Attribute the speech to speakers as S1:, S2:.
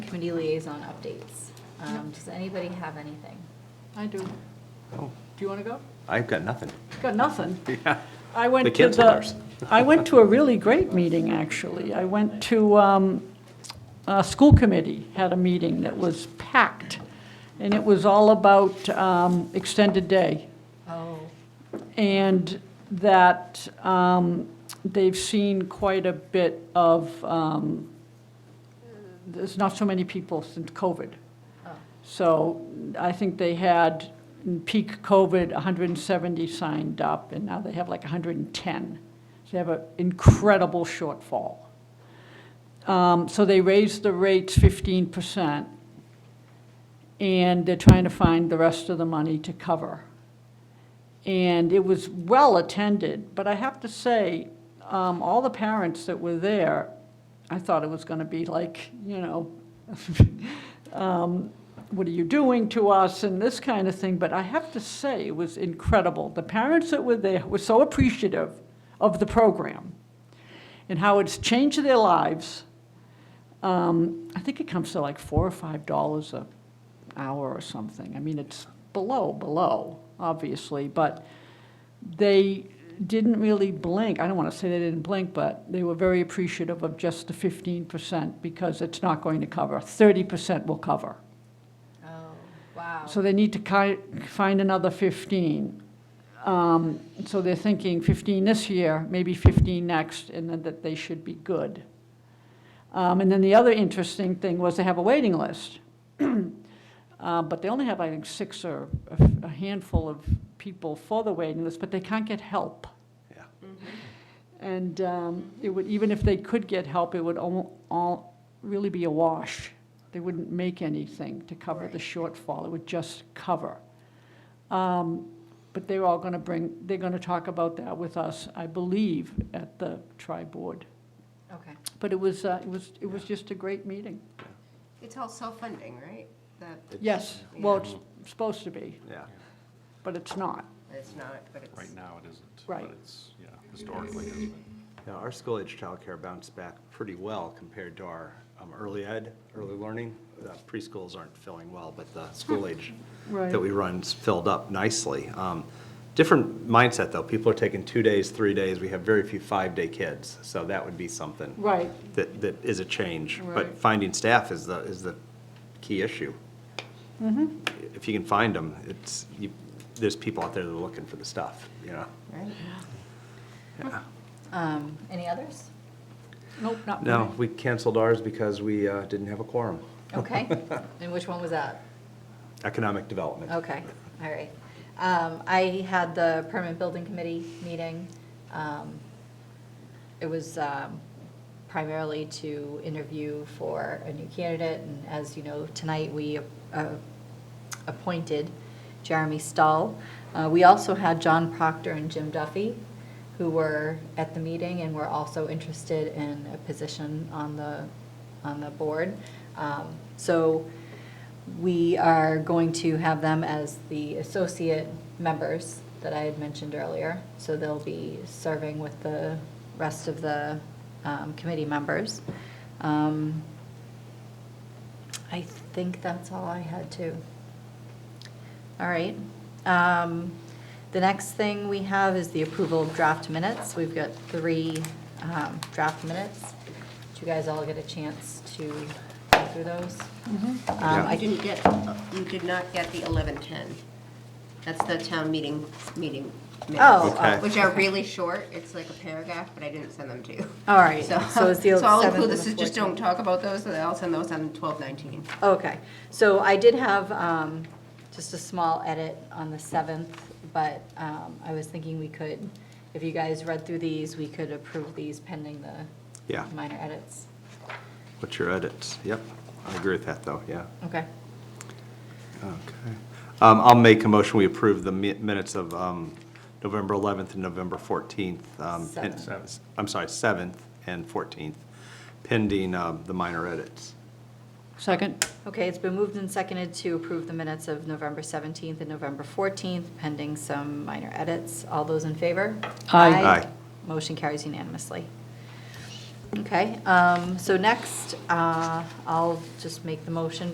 S1: committee liaison updates. Um, Does anybody have anything?
S2: I do. Do
S3: Oh,
S2: you want to go?
S3: I've got nothing.
S2: Got nothing.
S3: Yeah.
S2: I went
S3: The
S2: to
S3: kids are ours.
S2: I went to a really great meeting, actually. I went to, um, a school committee had a meeting that was packed, and it was all about, um, extended day.
S1: Oh,
S2: and that um, they've seen quite a bit of, um, there's not so many people since COVID.
S1: Oh.
S2: So I think they had, in peak COVID, 170 signed up, and now they have like 110. So they have an incredible shortfall. Um, So they raised the rates 15%, and they're trying to find the rest of the money to cover and it was well-attended, but I have to say, um, all the parents that were there, I thought it was going to be like, you know, um, what are you doing to us and this kind of thing, but I have to say, it was incredible. The parents that were there were so appreciative of the program and how it's changed their lives. Um, I think it comes to like four or five dollars a hour or something. I mean, it's below, below, obviously, but they didn't really blink. I don't want to say they didn't blink, but they were very appreciative of just the fifteen percent because it's not going to cover. Thirty percent will cover.
S1: oh, wow.
S2: So they need to ki- find another 15. Um, So they're thinking 15 this year, maybe 15 next, and then that they should be good. Um, And then the other interesting thing was they have a waiting list. Uh, But they only have, I think, six or a f- a handful of people for the waiting list, but they can't get help.
S3: Yeah.
S4: Mm-hmm.
S2: And um, it would, even if they could get help, it would all, all really be a wash. They wouldn't make anything to cover the shortfall, it would just cover. Um, But they're all going to bring, they're going to talk about that with us, I believe, at the tri-board.
S1: Okay.
S2: But it was, uh, it was, it was just a great meeting.
S4: It's all self-funding, right? That,
S2: Yes, well, it's supposed to be,
S3: Yeah.
S2: but it's not.
S4: it's not, but it's.
S5: Right now, it isn't.
S2: Right.
S5: But it's, yeah, historically, it's been.
S3: Now, our school age childcare bounced back pretty well compared to our um, early ed, early learning. Uh, Preschools aren't filling well, but the school age
S2: Right.
S3: that we run's filled up nicely. Um, Different mindset, though. People are taking two days, three days. We have very few five-day kids, so that would be something.
S2: Right.
S3: That, that is a change.
S2: Right.
S3: But finding staff is the, is the key issue. If you can find them, it's, you, there's people out there that are looking for the stuff, you know?
S4: Right?
S1: Um, Any others?
S2: Nope, not.
S3: No,
S2: mine.
S3: we canceled ours because we uh, didn't have a quorum.
S1: Okay. And which one was that?
S3: Economic development.
S1: Okay, all right. Um, I had the permanent building committee meeting. Um, It was um, primarily to interview for a new candidate, and as you know, tonight we uh, appointed Jeremy Stahl. Uh, We also had John Proctor and Jim Duffy, who were at the meeting and were also interested in a position on the, on the board. Um, So we are going to have them as the associate members that I had mentioned earlier. So they'll be serving with the rest of the um, committee members. Um, I think that's all I had too. All right. Um, The next thing we have is the approval of draft minutes. We've got three um, draft minutes. Did you guys all get a chance to go through those? Um,
S4: I
S1: I
S4: didn't get, you did not get the eleven-ten. That's the town meeting, meeting
S1: Oh,
S4: minutes.
S3: Okay.
S4: Which are really short, it's like a paragraph, but I didn't send them to you.
S1: All right, so it's the
S4: So I'll
S1: 7th
S4: include
S1: and
S4: this,
S1: the
S4: is just
S1: 14th.
S4: don't talk about those, and I'll send those on twelve nineteen.
S1: Okay, so I did have um, just a small edit on the 7th, but um, I was thinking we could, if you guys read through these, we could approve these pending the
S3: Yeah.
S1: minor edits.
S3: What's your edits? Yep, I agree with that, though, yeah.
S1: Okay,
S3: Okay. Um, I'll make a motion, we approve the mi- minutes of um, November 11th and November 14th. um, pen-
S5: Seventh.
S3: I'm sorry, 7th and 14th, pending um, the minor edits.
S2: Second,
S1: okay, it's been moved and seconded to approve the minutes of November 17th and November 14th pending some minor edits. All those in favor?
S2: Aye.
S3: Aye.
S1: Motion carries unanimously. Okay, um, so next, uh, I'll just make the motion